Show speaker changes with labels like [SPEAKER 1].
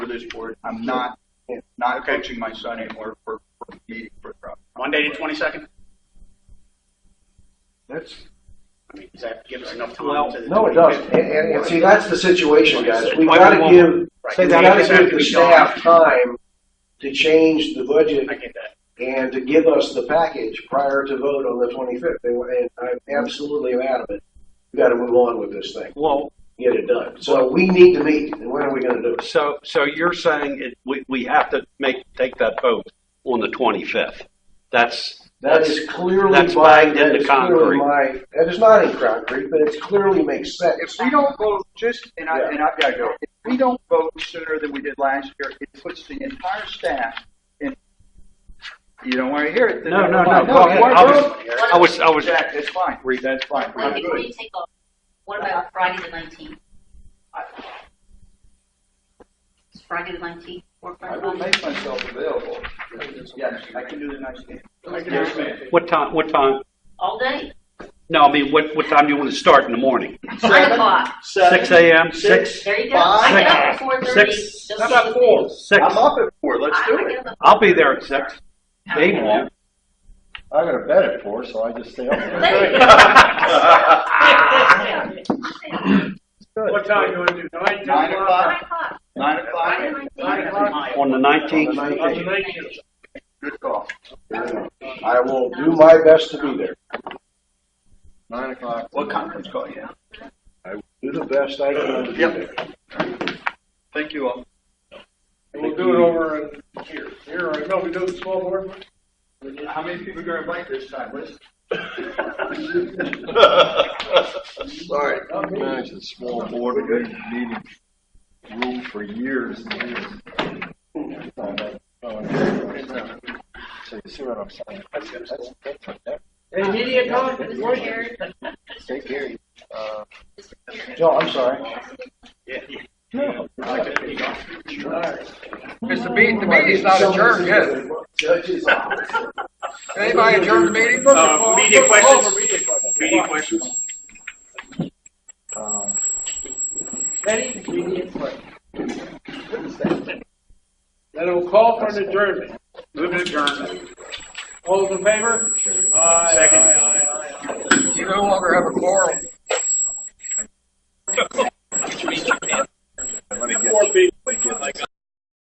[SPEAKER 1] this board. I'm not, not coaching my son anymore for, for meeting for the
[SPEAKER 2] Monday the twenty-second?
[SPEAKER 3] That's,
[SPEAKER 2] I mean, does that give us enough
[SPEAKER 3] Well,
[SPEAKER 2] time to?
[SPEAKER 3] no, it doesn't.
[SPEAKER 4] And, and, and see, that's the situation, guys. We
[SPEAKER 3] Why
[SPEAKER 4] gotta
[SPEAKER 3] won't-
[SPEAKER 4] give,
[SPEAKER 2] Right.
[SPEAKER 4] we gotta
[SPEAKER 2] Exactly.
[SPEAKER 4] give the staff time to change the budget
[SPEAKER 2] I get that.
[SPEAKER 4] and to give us the package prior to vote on the twenty-fifth. And I'm absolutely adamant, we gotta move on with this thing,
[SPEAKER 3] well,
[SPEAKER 4] get it done. So we need to meet, and when are we gonna do it?
[SPEAKER 5] So, so you're saying it, we, we have to make, take that vote on the 25th? That's,
[SPEAKER 4] That is clearly
[SPEAKER 5] That's
[SPEAKER 4] my,
[SPEAKER 5] bagged
[SPEAKER 4] that
[SPEAKER 5] into
[SPEAKER 4] is clearly
[SPEAKER 5] concrete.
[SPEAKER 4] my, that is not in concrete, but it clearly makes
[SPEAKER 1] If
[SPEAKER 4] sense.
[SPEAKER 1] we don't vote, just, and I,
[SPEAKER 4] Yeah.
[SPEAKER 1] and I've got to go, if we don't vote sooner than we did last year, it puts the entire staff in, you don't want to hear it. then
[SPEAKER 5] No, no,
[SPEAKER 1] never
[SPEAKER 5] no,
[SPEAKER 1] mind.
[SPEAKER 5] go ahead.
[SPEAKER 1] we're-
[SPEAKER 5] I was-
[SPEAKER 1] we're-
[SPEAKER 5] I was- I was-
[SPEAKER 1] Jack, that's fine,
[SPEAKER 5] Read.
[SPEAKER 1] that's fine.
[SPEAKER 6] What
[SPEAKER 1] We're
[SPEAKER 6] day do
[SPEAKER 1] good.
[SPEAKER 6] you take off? What about Friday the nineteenth? Is Friday the nineteenth work for
[SPEAKER 1] I will
[SPEAKER 6] everybody?
[SPEAKER 1] make myself available. Yes, I can do the next game.
[SPEAKER 6] Yes, ma'am.
[SPEAKER 5] what time, what time?
[SPEAKER 6] All day,
[SPEAKER 5] No, I mean, what, what time do you want to start in the morning?
[SPEAKER 6] nine o'clock,
[SPEAKER 5] Six AM, six?
[SPEAKER 6] there you go. I get up at four thirty.
[SPEAKER 5] Six. How about Six.
[SPEAKER 1] I'm up at four, let's do
[SPEAKER 6] I
[SPEAKER 1] it.
[SPEAKER 6] get up at
[SPEAKER 5] I'll be there at six. They won't.
[SPEAKER 7] I got a bed at four, so I just stay up there.
[SPEAKER 6] There you go.
[SPEAKER 2] What time you want to do, nine,
[SPEAKER 1] Nine o'clock,
[SPEAKER 6] Nine
[SPEAKER 1] nine
[SPEAKER 6] o'clock,
[SPEAKER 1] o'clock,
[SPEAKER 6] Friday the
[SPEAKER 1] nine o'clock,
[SPEAKER 6] nineteenth.
[SPEAKER 5] On the
[SPEAKER 4] On
[SPEAKER 5] 19th?
[SPEAKER 4] the 19th.
[SPEAKER 1] good call.
[SPEAKER 4] I will do my best to be there.
[SPEAKER 7] Nine o'clock.
[SPEAKER 1] What conference call, yeah?
[SPEAKER 4] Do the best I can to be
[SPEAKER 1] Yep.
[SPEAKER 4] there.
[SPEAKER 1] Thank you all.
[SPEAKER 8] We'll do it over in here, here, or no, we do the small board.
[SPEAKER 1] How many people are gonna invite this time, Liz?
[SPEAKER 7] Sorry. Imagine small board meeting room for years and years. So you see what I'm saying? That's, that's, that's, that's,
[SPEAKER 8] Immediate
[SPEAKER 6] Mr. Chair,
[SPEAKER 7] take care. Uh,
[SPEAKER 4] No, I'm sorry.
[SPEAKER 9] Mr. Beat, the meeting's not adjourned yet.
[SPEAKER 4] Judges.
[SPEAKER 9] Anybody adjourned the meeting?
[SPEAKER 2] Uh, media questions, media questions.
[SPEAKER 7] um,
[SPEAKER 8] Any immediate question? Then we'll call for an adjournment.
[SPEAKER 2] Move to adjourn.
[SPEAKER 8] All those in favor? Aye,
[SPEAKER 2] Second.
[SPEAKER 8] aye, aye, aye, aye.
[SPEAKER 9] You no longer have a quorum.
[SPEAKER 7] let me get.
[SPEAKER 8] Four people.